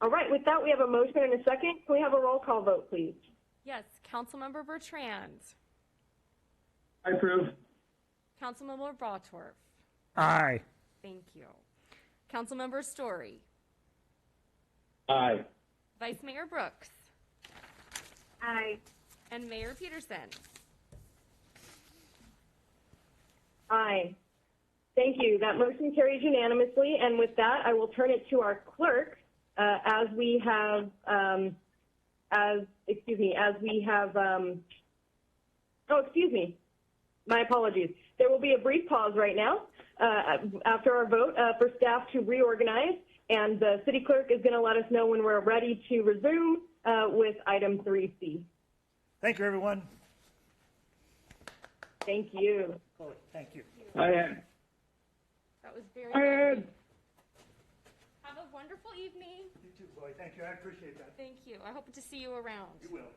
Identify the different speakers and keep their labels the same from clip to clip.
Speaker 1: All right, with that, we have a motion and a second. Can we have a roll call vote, please?
Speaker 2: Yes, Councilmember Bertrand,
Speaker 3: I approve.
Speaker 2: Councilmember Botworth,
Speaker 4: Aye.
Speaker 2: thank you. Councilmember Story,
Speaker 3: Aye.
Speaker 2: Vice Mayor Brooks,
Speaker 1: Aye.
Speaker 2: and Mayor Peterson.
Speaker 1: Aye. Thank you. That motion carries unanimously. And with that, I will turn it to our clerk uh, as we have, um, as, excuse me, as we have, um, oh, excuse me. My apologies. There will be a brief pause right now uh, after our vote uh, for staff to reorganize, and the city clerk is going to let us know when we're ready to resume uh, with item 3C.
Speaker 4: Thank you, everyone.
Speaker 1: Thank you.
Speaker 4: Chloe, thank you.
Speaker 3: I had,
Speaker 2: That was very.
Speaker 3: I
Speaker 2: nice.
Speaker 3: had,
Speaker 2: Have a wonderful evening.
Speaker 4: You too, Chloe. Thank you. I appreciate that.
Speaker 2: Thank you. I hope to see you around.
Speaker 4: You will.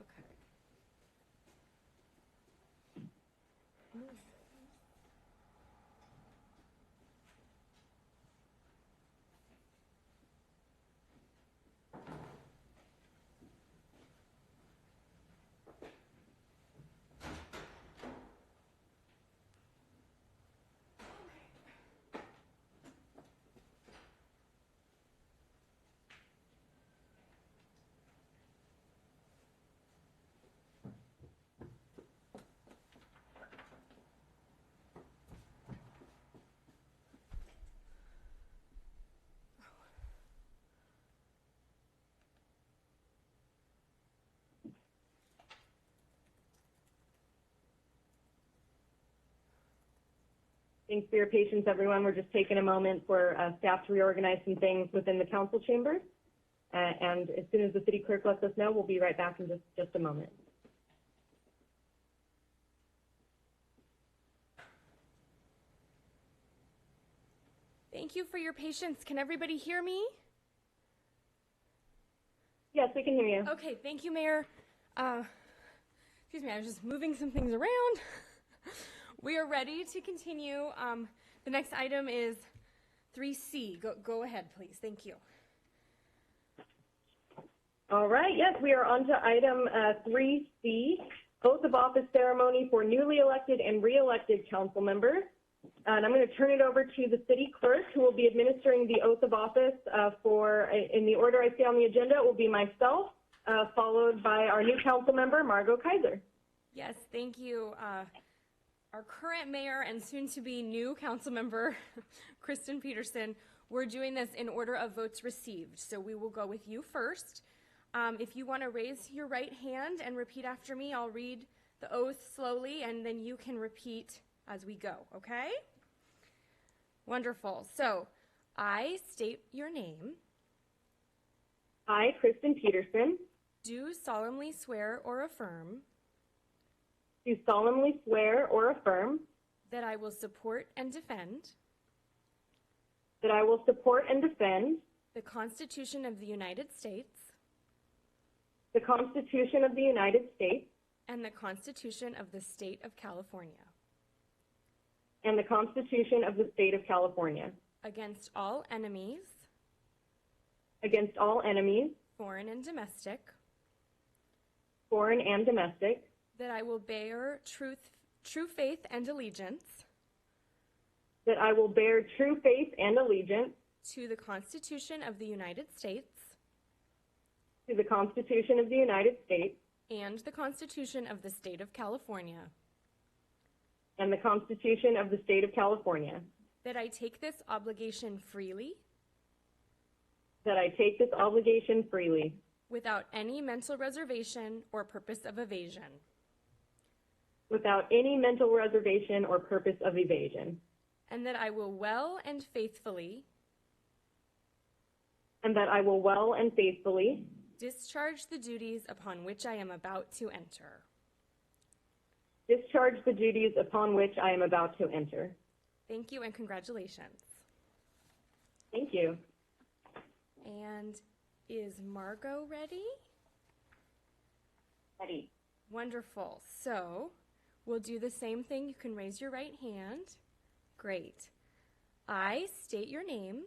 Speaker 2: Okay.
Speaker 1: Thanks for your patience, everyone. We're just taking a moment for uh, staff to reorganize some things within the council chamber. Uh, and as soon as the city clerk lets us know, we'll be right back in just, just a moment.
Speaker 2: Thank you for your patience. Can everybody hear me?
Speaker 1: Yes, we can hear you.
Speaker 2: Okay, thank you, Mayor. Uh, excuse me, I was just moving some things around. we are ready to continue. Um, the next item is 3C. Go, go ahead, please. Thank you.
Speaker 1: All right, yes, we are on to item uh, 3C, oath of office ceremony for newly elected and re-elected council members. And I'm going to turn it over to the city clerk, who will be administering the oath of office uh, for, in the order I see on the agenda, it will be myself, uh, followed by our new council member, Margot Kaiser.
Speaker 2: Yes, thank you. Uh, our current mayor and soon to be new council member, Kristen Peterson, we're doing this in order of votes received. So we will go with you first. Um, if you want to raise your right hand and repeat after me, I'll read the oath slowly and then you can repeat as we go, okay? Wonderful. So I state your name,
Speaker 1: I, Kristen Peterson,
Speaker 2: do solemnly swear or affirm
Speaker 1: do solemnly swear or affirm
Speaker 2: that I will support and defend.
Speaker 1: that I will support and defend
Speaker 2: The Constitution of the United States
Speaker 1: the Constitution of the United States
Speaker 2: and the Constitution of the State of California
Speaker 1: and the Constitution of the State of California
Speaker 2: against all enemies,
Speaker 1: against all enemies,
Speaker 2: foreign and domestic,
Speaker 1: foreign and domestic,
Speaker 2: that I will bear truth, true faith and allegiance
Speaker 1: that I will bear true faith and allegiance
Speaker 2: to the Constitution of the United States
Speaker 1: to the Constitution of the United States
Speaker 2: and the Constitution of the State of California,
Speaker 1: and the Constitution of the State of California,
Speaker 2: that I take this obligation freely
Speaker 1: that I take this obligation freely
Speaker 2: without any mental reservation or purpose of evasion,
Speaker 1: without any mental reservation or purpose of evasion,
Speaker 2: and that I will well and faithfully
Speaker 1: and that I will well and faithfully
Speaker 2: discharge the duties upon which I am about to enter.
Speaker 1: Discharge the duties upon which I am about to enter.
Speaker 2: Thank you and congratulations.
Speaker 1: Thank you.
Speaker 2: And is Margot ready?
Speaker 1: Ready.
Speaker 2: Wonderful. So we'll do the same thing. You can raise your right hand. Great. I state your name,